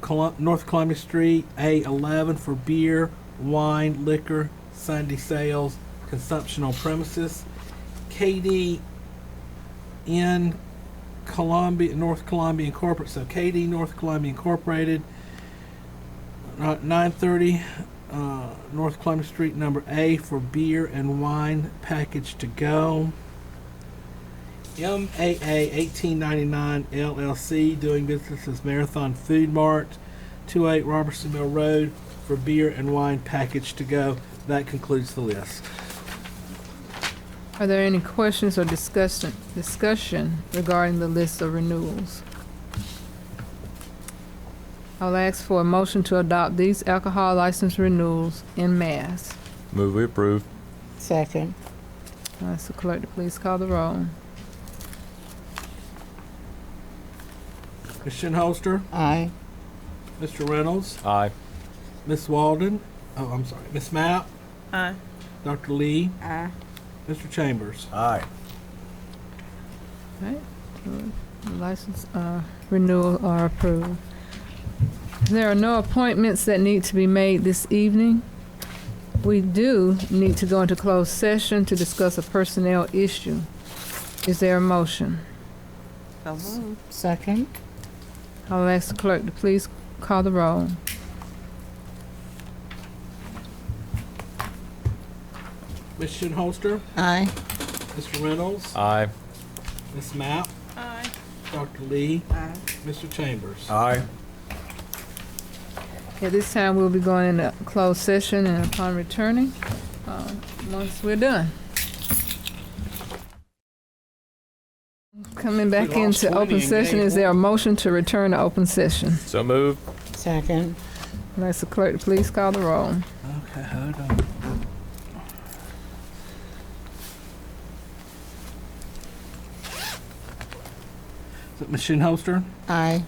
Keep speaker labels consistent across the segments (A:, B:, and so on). A: Colum- North Columbia Street, A11 for beer, wine, liquor, Sunday sales, consumption on premises. KD in Columbia, North Columbia Incorporated, so KD North Columbia Incorporated, uh, 930 uh, North Columbia Street, number A for beer and wine package to go. MAA 1899 LLC doing business as Marathon Food Mart, 28 Robertson Mill Road for beer and wine package to go. That concludes the list.
B: Are there any questions or discussion, discussion regarding the list of renewals? I'll ask for a motion to adopt these alcohol license renewals in mass.
C: Move we approve.
D: Second.
B: I'll ask the Uh, clerk to please call the roll.
A: Ms. Shinholster,
D: Aye.
A: Mr. Reynolds,
C: Aye.
A: Miss Walden, oh, I'm sorry, Miss Mapp,
E: Aye.
A: Dr. Lee,
E: Aye.
A: Mr. Chambers.
C: Aye.
B: Right, the license uh, renewal are approved. There are no appointments that need to be made this evening. We do need to go into closed session to discuss a personnel issue. Is there a motion?
E: So moved.
D: Second.
B: I'll ask the clerk to please call the roll.
A: Ms. Shinholster,
D: Aye.
A: Mr. Reynolds,
C: Aye.
A: Miss Mapp,
E: Aye.
A: Dr. Lee,
E: Aye.
A: Mr. Chambers.
C: Aye.
B: At this time, we'll be going into closed session and upon returning, uh, once we're done. Coming back
A: We lost
B: into
A: 20
B: open
A: in
B: session,
A: game
B: is there a motion to return to open session?
C: So move.
D: Second.
B: I'll ask the clerk to please call the roll.
A: Okay, um, hold on. Is it Ms. Shinholster,
D: Aye.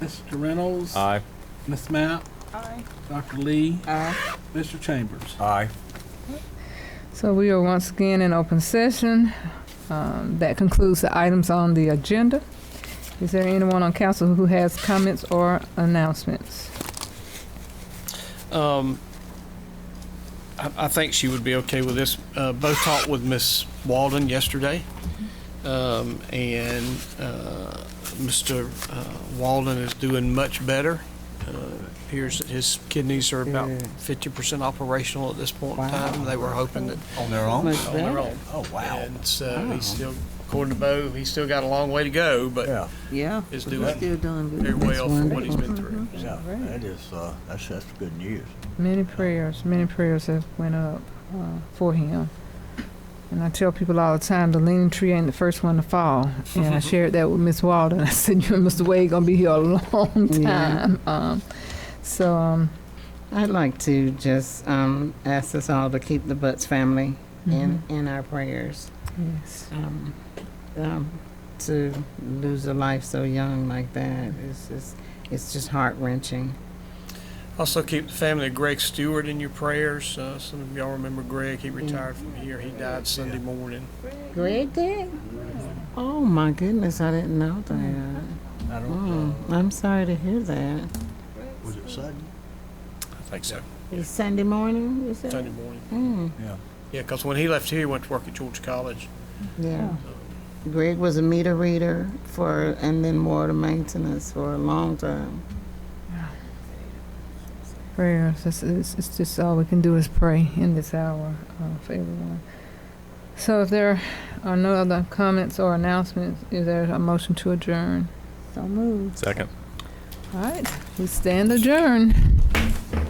A: Mr. Reynolds,
C: Aye.
A: Miss Mapp,
E: Aye.
A: Dr. Lee,
E: Aye.
A: Mr. Chambers.
C: Aye.
B: So we are once again in open session. Um, That concludes the items on the agenda. Is there anyone on council who has comments or announcements?
F: Um, I, I think she would be okay with this. Uh, both talked with Miss Walden yesterday, um, and uh, Mr. Uh, Walden is doing much better. Uh, appears that his kidneys are about
D: Good.
F: fifty percent operational at this point
D: Wow.
F: in time. They were hoping that
G: On their own?
D: Much
F: on their
D: better.
F: own. Oh wow! And so he's still, according to Bo, he's still got a long way to go, but
G: Yeah,
E: Yeah.
F: is
E: We're
F: doing
E: still doing good.
F: very well for what he's been through.
G: yeah, that is, uh, that's, that's good news.
B: Many prayers, many prayers have went up uh, for him. And I tell people all the time, the leaning tree ain't the first one to fall. And I shared that with Miss Walden. I said, you and Mr. Wade gonna be here a long
D: Yeah.
B: time. Um, so um,
D: I'd like to just um, ask us all to keep the Butts family in,
E: Mm-hmm.
D: in our prayers.
B: yes,
D: Um, um, to lose a life so young like that is just, it's just heart wrenching.
F: Also, keep the family of Greg Stewart in your prayers. Uh, some of y'all remember Greg. He retired from here. He died Sunday morning.
D: Greg did? Oh my goodness, I didn't know that.
G: I
D: Mm,
G: don't,
D: I'm sorry to hear that.
G: uh, was it sudden?
F: I think so.
D: It's Sunday morning, you said?
F: Sunday morning.
D: Mm,
G: Yeah.
F: Yeah, because when he left here, he went to work at Georgia College.
D: yeah. Greg was a meter reader for, and then water maintenance for a long time.
B: prayers. It's, it's, it's just all we can do is pray in this hour uh, for everyone. So if there are no other comments or announcements, is there a motion to adjourn?
E: So moved.
C: Second.
B: All right, we stand adjourned.